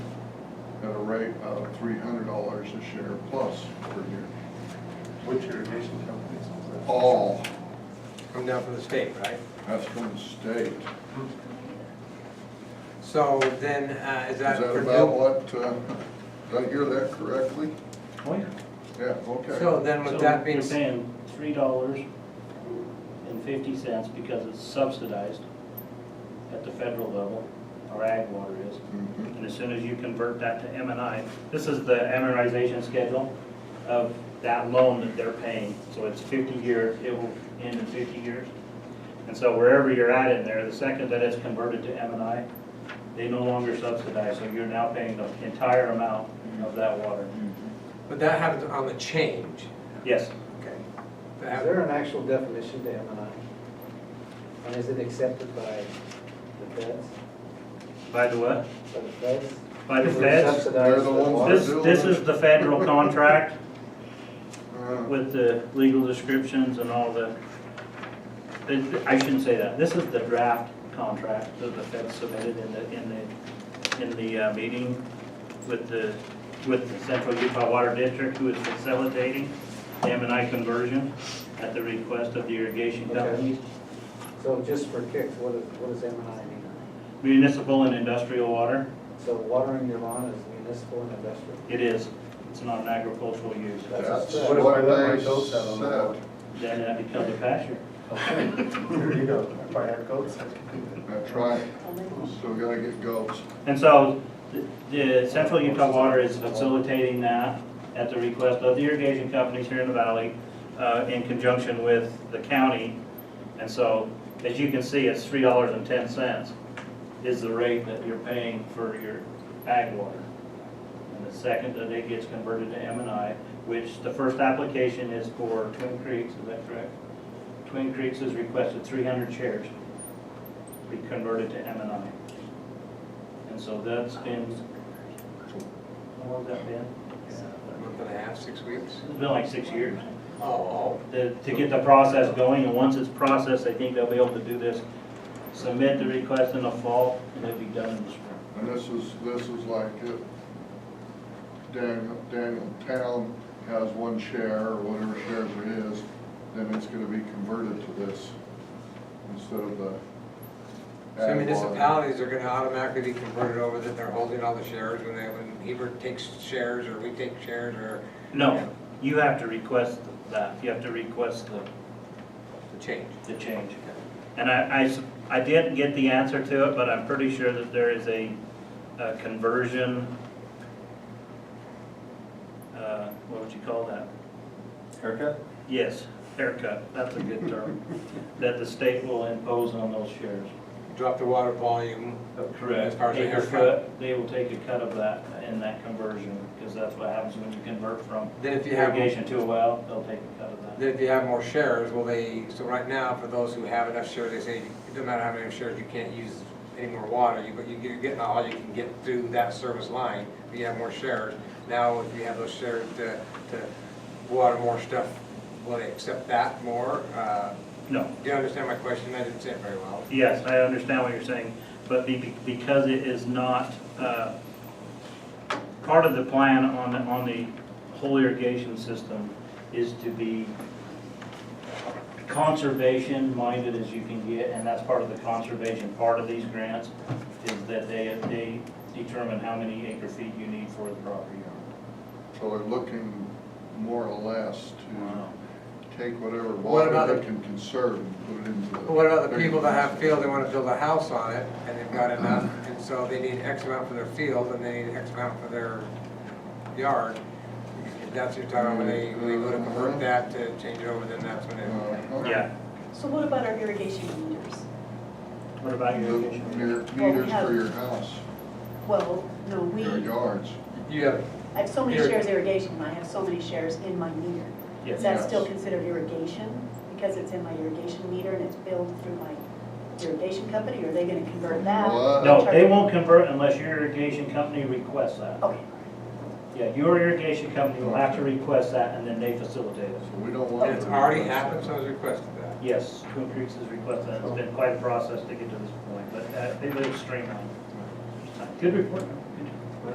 at a rate of three hundred dollars a share plus per year. Which irrigation companies was that? All, Come down from the state, right? that's from the state. Is So then, uh, is that that for about new? what, uh, did I hear that correctly? Oh, yeah. Yeah, okay. So then with So that being, We're s- paying three dollars and fifty cents because it's subsidized at the federal level, our ag water is. Mm-hmm. Mhm. And as soon as you convert that to M and I, this is the amortization schedule of that loan that they're paying. So it's fifty years, it will end in fifty years. And so wherever you're at in there, the second that it's converted to M and I, they no longer subsidize, so you're now paying the entire amount of that water. Mm-hmm. but that happens on the change, Yes, okay? Is That- there an actual definition to M and I? And is it accepted by the feds, by the what? by the feds? By the We're feds? subsidized They're the ones water. This, this is the federal contract Uh, with the legal descriptions and all the, the- I shouldn't say that. This is the draft contract that the feds submitted in the, in the, in the uh, meeting with the, with the Central Utah Water District who is facilitating the M and I conversion at the request of the irrigation Okay. companies. So just for kicks, what is, what does M and I mean? Municipal and industrial water, So watering your lawn is municipal and industrial? it is. It's not an agricultural use. That's if What I what let my they goats out on the said. lawn? Then that becomes a pasture. There you go, if I had goats. I could- That's right, still gotta get goats. And so the- the Central Utah Water is facilitating that at the request of the irrigation companies here in the valley uh, in conjunction with the county. And so, as you can see, it's three dollars and ten cents is the rate that you're paying for your ag water. And the second that it gets converted to M and I, which the first application is for Twin Creeks, is that correct? Twin Creeks has requested three hundred shares be converted to M and I. And so that's been, how long has that been? A month and a half, six weeks? It's been like six years. Oh, To, to get the process going, and once it's processed, I think they'll be able to do this. Submit the request in the fall, and it'll be done in the spring. And this is, this is like it. Daniel, Daniel Town has one share or whatever shares it is, then it's gonna be converted to this instead of the. ag so water. municipalities are gonna automatically be converted over that they're holding all the shares when they, when Hebert takes shares or we take shares or No, you have to request that, you have to request the, the change. the change. And I, I s- I didn't get the answer to it, but I'm pretty sure that there is a, a conversion, uh, what would you call that? Haircut? Yes, haircut, that's a good term, that the state will impose on those shares. Drop the water volume, Oh, As far as the Take a haircut. cut, They will take a cut of that in that conversion, because that's what happens when you convert from then if you have. irrigation to a well, they'll take a cut of that. Then if you have more shares, will they, so right now, for those who have enough shares, they say, it doesn't matter how many shares, you can't use any more water, you, but you- you're getting all you can get through that service line, if you have more shares. Now, if you have those shares to, to water more stuff, will they accept that more? Uh, No, Do you understand my question? I didn't say it very well. yes, I understand what you're saying, but be- because it is not, uh, part of the plan on, the- on the whole irrigation system is to be conservation minded as you can get, and that's part of the conservation part of these grants, is that they, they determine how many acre feet you need for the property owner. So they're looking more or less to take whatever What about water the- they can conserve and put it into. But What about the people that have field, they wanna build a house on it, and they've got enough, and so they need X amount for their field, and they need X amount for their yard? If that's your time, when they, when they go to convert that to change it over, then that's when it, Uh-huh. Yeah, So what about our irrigation meters? what about The your irrigation? meter- Meters for your house, Well, no, we, your yards. you have, I have so many Irrig- shares irrigation, I have so many shares in my meter. Yes, Is that still Yes. considered irrigation? Because it's in my irrigation meter and it's billed through my irrigation company, or are they gonna convert that? What? no, they won't convert unless your irrigation company requests that. Okay, Yeah, your irrigation company will have to request that, and then they facilitate it. So we don't want. and it's to- already happened, so I was requested that. Yes, Twin Creeks has requested, that. it's been quite a process to get to this point, but uh, they live streamlined. Good report.